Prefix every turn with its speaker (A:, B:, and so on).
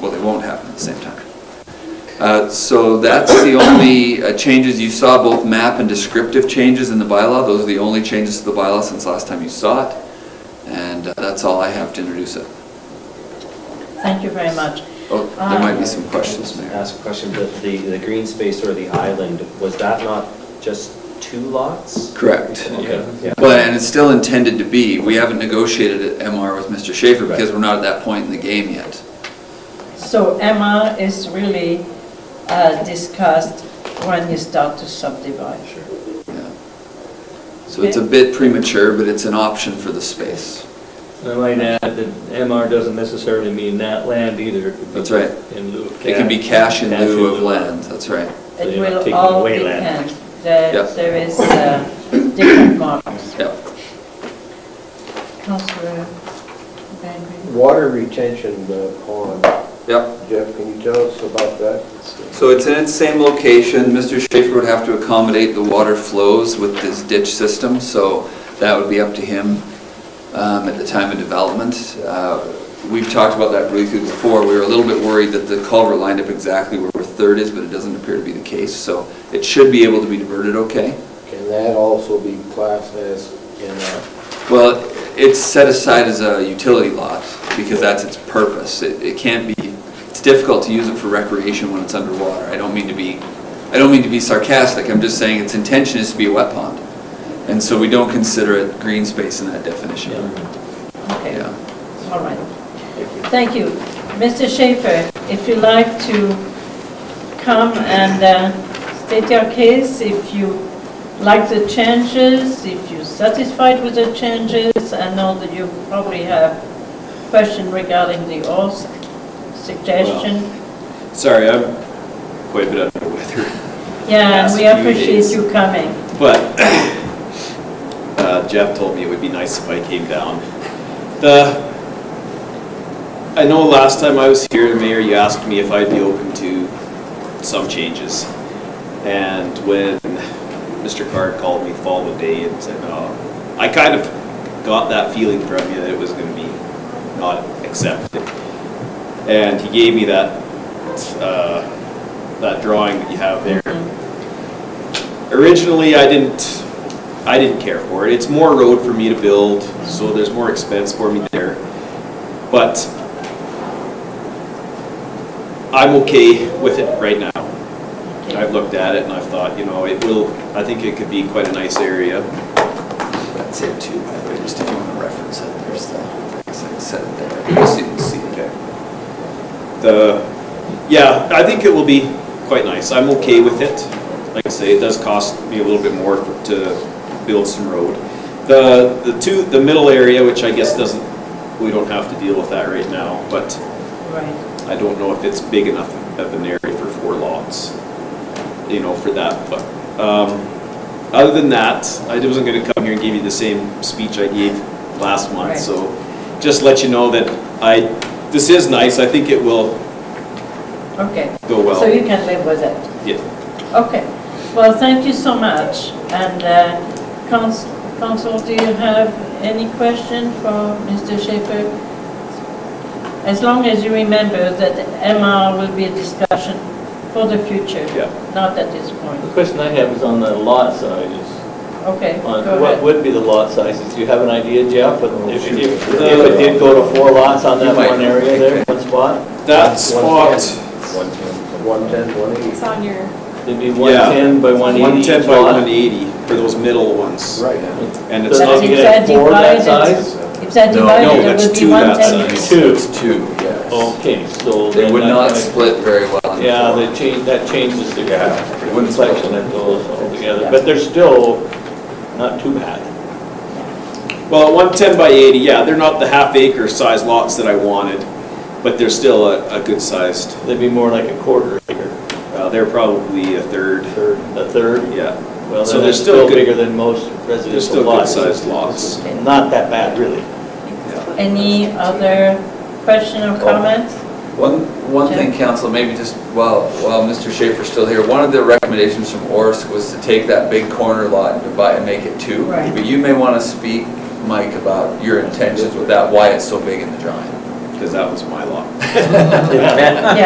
A: well, they won't happen at the same time. Uh, So that's the only uh, changes, you saw both map and descriptive changes in the bylaw, those are the only changes to the bylaw since last time you saw it, and uh, that's all I have to introduce it.
B: Thank you very much.
A: Oh, there might be some questions, Mayor.
C: Ask a question, the, the the green space or the island, was that not just two lots?
A: Correct.
C: Okay, yeah.
A: But, and it's still intended to be, we haven't negotiated an MR with Mr. Schaefer because we're not at that point in the game yet.
B: So MR is really uh, discussed when you start to subdivide.
C: Sure.
A: Yeah. So it's a bit premature, but it's an option for the space.
D: I might add that MR doesn't necessarily mean that land either. It could be
A: That's right.
D: In lieu of cash.
A: It can be cash in lieu of land, that's right.
D: So
B: It
D: you're not
B: will
D: taking
B: all
D: away land.
B: depend, there
A: Yeah.
B: there is uh, different models.
A: Yeah.
B: Councillor Van Green?
E: Water retention uh, pond,
A: Yeah.
E: Jeff, can you tell us about that?
A: So it's in its same location. Mr. Schaefer would have to accommodate the water flows with this ditch system, so that would be up to him um, at the time of development. Uh, We've talked about that briefly before. We were a little bit worried that the culvert lined up exactly where Third is, but it doesn't appear to be the case, so it should be able to be diverted okay.
E: Can that also be classed as in uh, a,
A: Well, it's set aside as a utility lot because that's its purpose. It, it can't be, it's difficult to use it for recreation when it's underwater. I don't mean to be, I don't mean to be sarcastic, I'm just saying its intention is to be a wet pond. And so we don't consider it green space in that definition.
B: Okay,
A: Yeah.
B: all right. Thank you. Mr. Schaefer, if you like to come and uh, state your case, if you like the changes, if you're satisfied with the changes, I know that you probably have question regarding the OSC suggestion.
F: Sorry, I'm quite a bit under the weather,
B: Yeah, and
F: last
B: we
F: few
B: appreciate
F: days.
B: you coming.
F: but uh, Jeff told me it would be nice if I came down. The, I know last time I was here, Mayor, you asked me if I'd be open to some changes. And when Mr. Carr called me following day and said, oh, I kind of got that feeling from you that it was gonna be not accepted. And he gave me that, uh, that drawing that you have there.
B: Mm,
F: Originally, I didn't, I didn't care for it. It's more road for me to build, so there's more expense for me there. But I'm okay with it right now.
B: Okay.
F: I've looked at it and I've thought, you know, it will, I think it could be quite a nice area.
A: That's it too, by the way, just if you want to reference it, there's the, set it there. You see- you see it there.
F: The, yeah, I think it will be quite nice. I'm okay with it. Like I say, it does cost me a little bit more for- to build some road. The, the two, the middle area, which I guess doesn't, we don't have to deal with that right now, but
B: Right,
F: I don't know if it's big enough of an area for four lots, you know, for that, but, um, other than that, I wasn't gonna come here and give you the same speech I gave last month,
B: Right.
F: so just let you know that I, this is nice, I think it will
B: okay.
F: go well.
B: So you can live with it.
F: Yeah,
B: Okay, well, thank you so much. And uh, Cons- Council, do you have any question for Mr. Schaefer? As long as you remember that MR will be a discussion for the future,
F: Yeah.
B: not at this
D: The
B: point.
D: question I have is on the lot sizes.
B: Okay,
D: On
B: go
D: uh, what
B: ahead.
D: would be the lot sizes? Do you have an idea, Jeff? If it- if- if it did go to four lots on that
A: You might-
D: one area there, one spot,
F: that spot,
E: 110, 180?
G: It's on your,
D: it'd be
F: Yeah.
D: 110 by 180
F: one
D: each
F: ten by
D: lot.
F: one eighty for those middle ones,
E: Right.
F: and it's
D: Does
B: But
D: not
F: not,
B: if
D: get
B: they're
D: four
B: divided-
D: that size?
B: If they're
A: No,
B: divided,
F: no,
B: it
F: that's
B: would be
F: two
B: one
F: that
B: ten.
F: size.
D: Two.
A: Two.
F: Um,
E: Yes.
D: Okay, so.
A: They
D: then
A: would
D: that
A: not
D: kinda-
A: split very well. on the
D: Yeah,
A: floor.
D: that change, that changes the
A: it wouldn't
D: complexion of those altogether, but they're still not too bad.
F: well, one ten by eighty, yeah, they're not the half acre size lots that I wanted, but they're still a, a good sized,
D: They'd be more like a quarter acre,
F: uh, they're probably a third,
D: third, a third.
F: yeah,
D: Well,
F: So
D: then
F: they're
D: that's
F: still
D: still
F: good-
D: bigger than most
F: they're
D: residential
F: still good
D: lots.
F: sized lots.
D: Not that bad, really.
B: Any other question or comment?
A: One, one thing, council, maybe just while, while Mr. Schaefer's still here, one of the recommendations from Orsk was to take that big corner lot and divide and make it two.
B: Right.
A: But you may want to speak, Mike, about your intentions with that, why it's so big in the drawing.
F: because that was my lot.
D: Yeah.